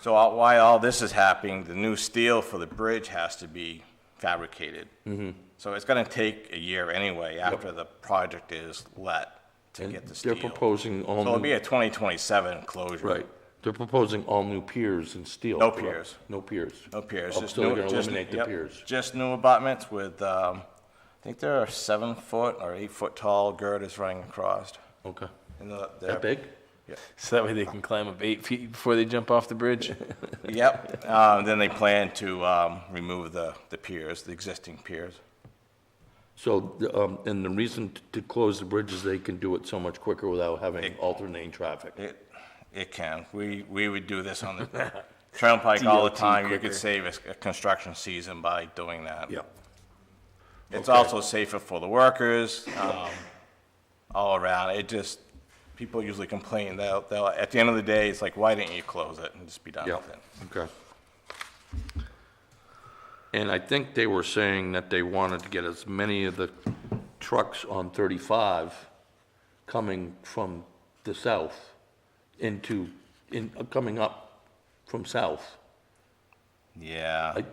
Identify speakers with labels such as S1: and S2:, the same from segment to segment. S1: So all- while all this is happening, the new steel for the bridge has to be fabricated.
S2: Mm-hmm.
S1: So it's gonna take a year anyway after the project is let to
S2: And
S1: get the steel.
S2: They're proposing all
S1: So it'll be
S2: new,
S1: a 2027 closure.
S2: right, they're proposing all new piers and steel.
S1: No
S2: correct?
S1: piers.
S2: No piers.
S1: No piers.
S2: Oh,
S1: just
S2: So they're
S1: new-
S2: gonna
S1: just-
S2: eliminate the
S1: yep,
S2: piers.
S1: Just new abutments with, um, I think there are seven foot or eight foot tall girders running across.
S2: Okay.
S1: And the- they're-
S2: That big?
S3: So that way they can climb up eight feet before they jump off the bridge.
S1: Yep. Um, Then they plan to um, remove the the piers, the existing piers.
S2: So, the, um, and the reason t- to close the bridge is they can do it so much quicker without having alternating traffic.
S1: It, it can. We, we would do this on the turnpike all the
S3: DOT
S1: time. You
S3: quicker.
S1: could save a s- a construction season by doing that.
S2: Yeah.
S1: It's
S2: okay.
S1: also safer for the workers, um, all around. It just, people usually complain, they'll, they'll, at the end of the day, it's like, why didn't you close it and just be done
S2: Yeah,
S1: with it?
S2: okay. And I think they were saying that they wanted to get as many of the trucks on 35 coming from the south into, in, uh, coming up from south.
S1: Yeah.
S2: I, I-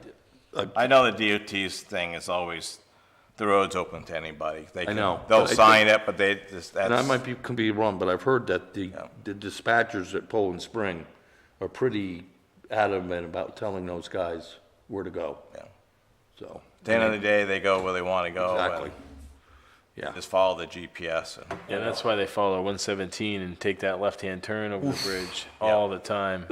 S1: I know the DOT's thing is always, the road's open to anybody. They can-
S2: know,
S1: They'll
S2: but I
S1: sign it, but they, just
S2: and I
S1: that's,
S2: might be, could be wrong, but I've heard that the the dispatchers at Poland Spring are pretty adamant about telling those guys where to go,
S1: yeah.
S2: so.
S1: at the end of the day, they go where they want to go. and
S2: Exactly. Yeah.
S1: Just follow the GPS and.
S3: Yeah, that's why they follow 117 and take that left-hand turn over the bridge all the time.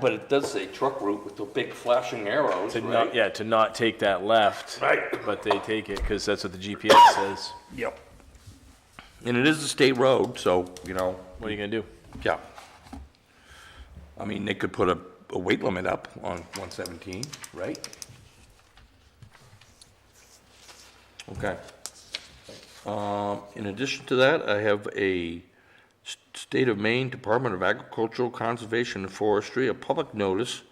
S2: But it does say truck route with the big flashing arrows,
S3: To not, yeah, to not take that left.
S2: Right.
S3: But they take it because that's what the GPS says.
S2: Yep. And it is a state road, so, you know,
S3: What are you gonna do?
S2: yeah. I mean, they could put a, a weight limit up on 117, right? Okay. Um, in addition to that, I have a S- State of Maine Department of Agricultural Conservation and Forestry, a public notice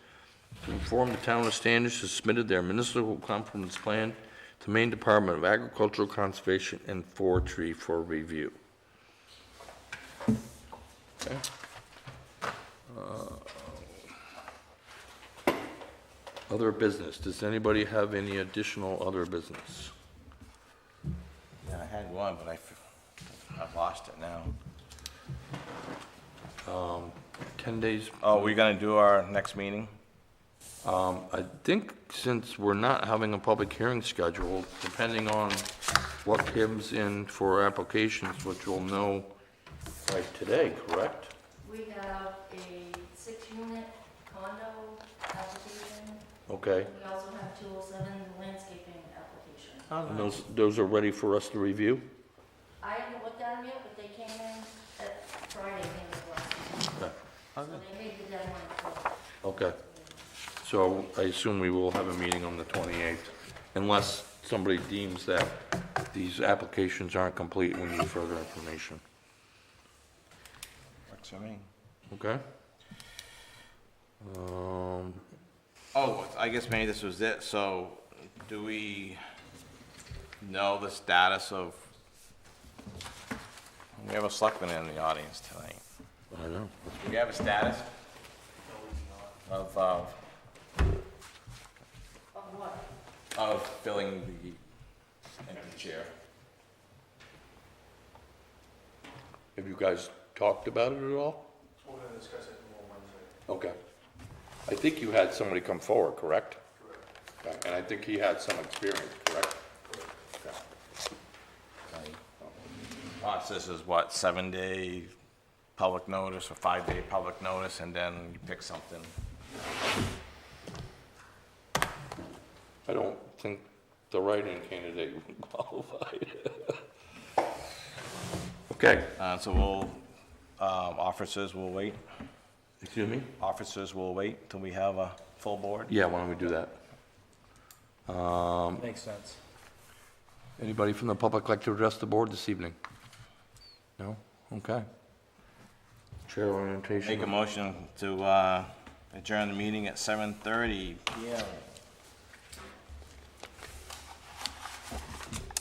S2: to inform the town of Standish has submitted their municipal compliance plan to Maine Department of Agricultural Conservation and Forestry for review. Okay. Uh, Other business, does anybody have any additional other business?
S1: Yeah, I had one, but I, f- I've lost it now.
S2: 10 days
S1: Oh, we're gonna do our next meeting?
S2: Um, I think since we're not having a public hearing scheduled, depending on what comes in for applications, which we'll know by today, correct?
S4: We have a six-unit condo application.
S2: Okay,
S4: We also have 207 landscaping application.
S2: and those, those are ready for us to review?
S4: I haven't looked at them yet, but they came in at Friday, came in last.
S2: Okay.
S4: So they made the deadline for
S2: Okay, so I assume we will have a meeting on the 28th, unless somebody deems that these applications aren't complete, and we need further information,
S1: Works for me.
S2: okay? Um,
S1: Oh, I guess maybe this was it, so do we know the status of? We have a selectman in the audience tonight.
S2: I know.
S1: Do we have a status? Of, uh,
S4: Of what?
S1: of filling the empty chair?
S2: Have you guys talked about it at all? We're gonna discuss it more Wednesday. Okay. I think you had somebody come forward, correct? Correct. And I think he had some experience, correct?
S1: Process is what, seven day public notice or five day public notice, and then you pick something?
S2: I don't think the writing candidate would qualify. Okay.
S1: Uh, so we'll, um, officers will wait,
S2: Excuse me?
S1: officers will wait till we have a full board.
S2: Yeah, why don't we do that?
S5: Makes sense.
S2: Anybody from the public like to address the board this evening? No? Okay. Chair orientation.
S1: Make a motion to, uh, adjourn the meeting at seven thirty.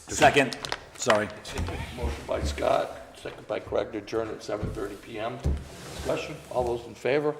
S5: Second, sorry.
S2: Motion by Scott, second by Craig to adjourn at 7:30 PM. Discussion, all those in favor?